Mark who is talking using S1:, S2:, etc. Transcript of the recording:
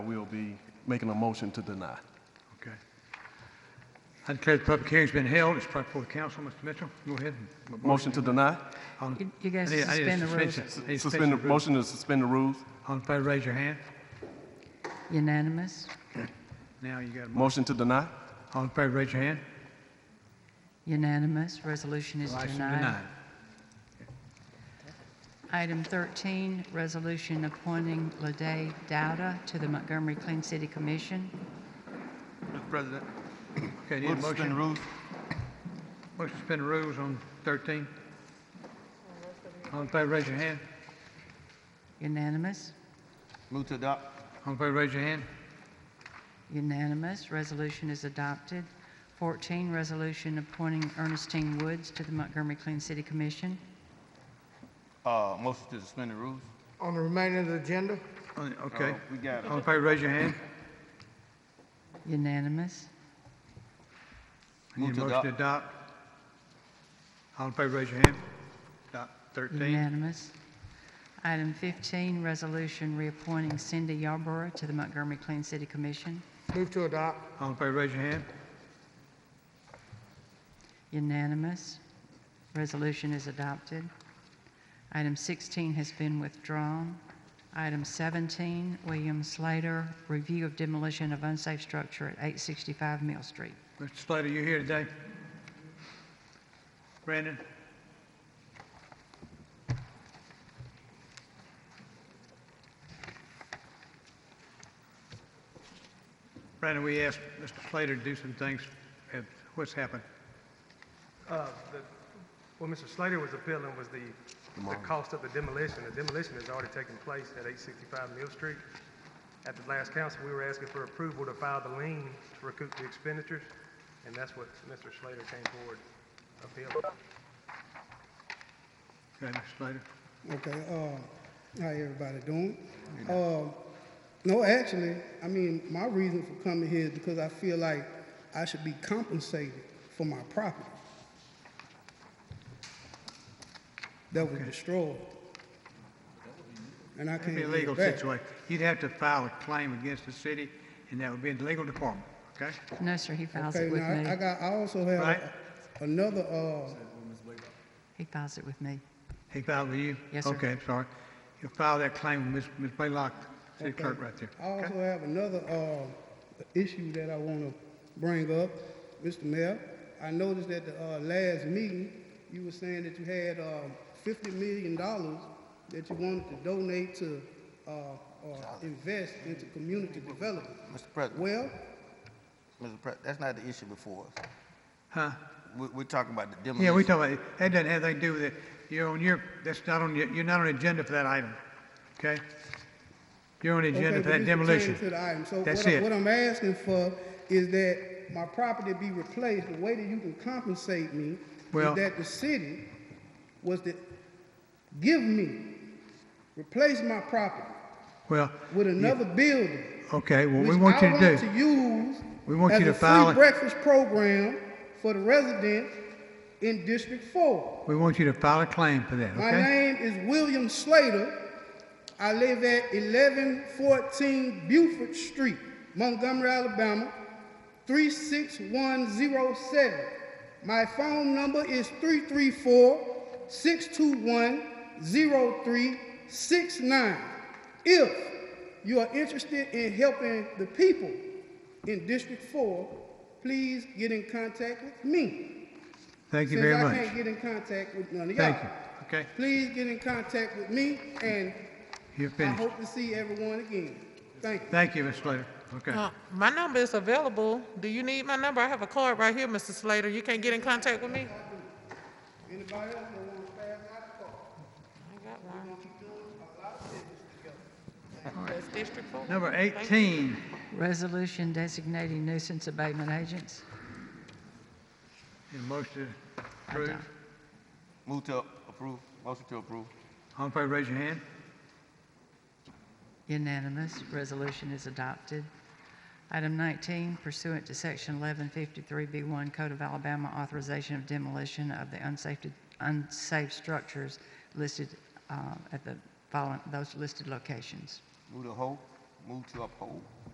S1: We'll be making a motion to deny.
S2: Okay. I declare the public hearing's been held. It's brought before the council. Mr. Mitchell, go ahead. and-
S1: Motion to deny?
S2: All-
S3: You- you guys
S2: I need- I need a
S3: suspend the rules.
S2: suspension. I need
S1: Suspend, the-
S2: a suspension of rules.
S1: motion to suspend the rules?
S2: All in favor, raise your hand.
S3: Unanimous?
S2: Now you got a mo-
S1: Motion to deny?
S2: All in favor, raise your hand.
S3: Unanimous. Resolution is
S2: License
S3: denied.
S2: denied.
S3: Item 13, resolution appointing Lede Dowda to the Montgomery Clean City Commission.
S2: Mr. President. Okay, need a
S4: Move to suspend
S2: motion?
S4: the rules.
S2: Motion to suspend the rules on 13. All in favor, raise your hand.
S3: Unanimous?
S4: Move to adopt.
S2: All in favor, raise your hand.
S3: Unanimous. Resolution is adopted. 14, resolution appointing Ernestine Woods to the Montgomery Clean City Commission.
S4: Uh, motion to suspend the rules.
S5: On the remainder of the agenda,
S2: On- Okay.
S4: Uh, We got
S2: All in favor, raise your hand.
S3: Unanimous?
S2: I Need
S4: Move
S2: a
S4: to
S2: motion to adopt. All in favor, raise your hand. Adopt 13.
S3: Unanimous. Item 15, resolution reappointing Cindy Yarborough to the Montgomery Clean City Commission.
S5: move to adopt.
S2: All in favor, raise your hand.
S3: Unanimous. Resolution is adopted. Item 16 has been withdrawn. Item 17, William Slater, review of demolition of unsafe structure at 865 Mill Street.
S2: Mr. Slater, you here today? Brandon? Brandon, we asked Mr. Slater to do some things. and What's happened?
S6: Uh, the- What Mr. Slater was appealing was the, the cost of the demolition. The demolition has already taken place at 865 Mill Street. At the last council, we were asking for approval to file the lien to recoup the expenditures, and that's what Mr. Slater came forward appealing.
S2: Okay, Mr. Slater?
S7: Okay, uh, how everybody doing? Uh, no, actually, I mean, my reason for coming here is because I feel like I should be compensated for my property that was destroyed. And I
S2: It'd
S7: can't
S2: be a
S7: get it
S2: legal
S7: back.
S2: situation. You'd have to file a claim against the city, and that would be in the legal department, okay?
S3: No, sir, he files
S7: Okay,
S3: it with
S7: now, I- I
S3: me.
S7: got, I also have
S2: Right.
S7: another, uh,
S3: He files it with me.
S2: He filed with you?
S3: Yes, sir.
S2: Okay, I'm sorry. You'll file that claim with Ms. Ms. Blaylock, city
S7: Okay.
S2: clerk right there.
S7: I also have another uh, issue that I want to bring up, Mr. Mayor. I noticed at the uh, last meeting, you were saying that you had uh, $50 million that you wanted to donate to uh, or invest into community development.
S4: Mr. President,
S7: Well,
S4: Mr. President, that's not the issue before us.
S2: Huh?
S4: We, we're talking about the demolition.
S2: Yeah, we talking about, that doesn't have anything to do with it. You're on your, that's not on, your- you're not on the agenda for that item, okay? You're on the
S7: okay,
S2: agenda
S7: but
S2: for that
S7: this pertains
S2: demolition.
S7: to the item. So what
S2: That's
S7: I-
S2: it.
S7: What I'm asking for is that my property be replaced. The way that you can compensate me
S2: Well-
S7: is that the city was to give me, replace my property
S2: Well,
S7: with another building.
S2: okay, what we
S7: which
S2: want
S7: I
S2: you to
S7: want
S2: do,
S7: to use
S2: We want
S7: as
S2: you to
S7: a
S2: file it-
S7: free breakfast program for the residents in District Four.
S2: we want you to file a claim for that,
S7: My
S2: okay?
S7: name is William Slater. I live at eleven fourteen Beaufort Street, Montgomery, Alabama, three six one zero seven. My phone number is 334-621-0369. If you are interested in helping the people in District Four, please get in contact with me.
S2: Thank you very
S7: Since I
S2: much.
S7: can't get in contact with none of y'all.
S2: Thank you, okay?
S7: Please get in contact with me, and
S2: You're
S7: I
S2: finished.
S7: hope to see everyone again. Thank you.
S2: Thank you, Mr. Slater, okay.
S8: Uh, My number is available. Do you need my number? I have a card right here, Mr. Slater. You can't get in contact with me?
S7: Anybody else that wants to pass out the call?
S8: I got one. That's District Four.
S2: Number
S8: Thank you.
S2: 18,
S3: Resolution designating nuisance abatement agents.
S2: your motion to approve.
S3: Adopt.
S4: Move to approve, motion to approve.
S2: All in favor, raise your hand.
S3: Unanimous. Resolution is adopted. Item 19, pursuant to Section 1153B1 Code of Alabama, authorization of demolition of the unsafe, unsafe structures listed uh, at the following, those listed locations.
S4: Move to hold. Move to uphold.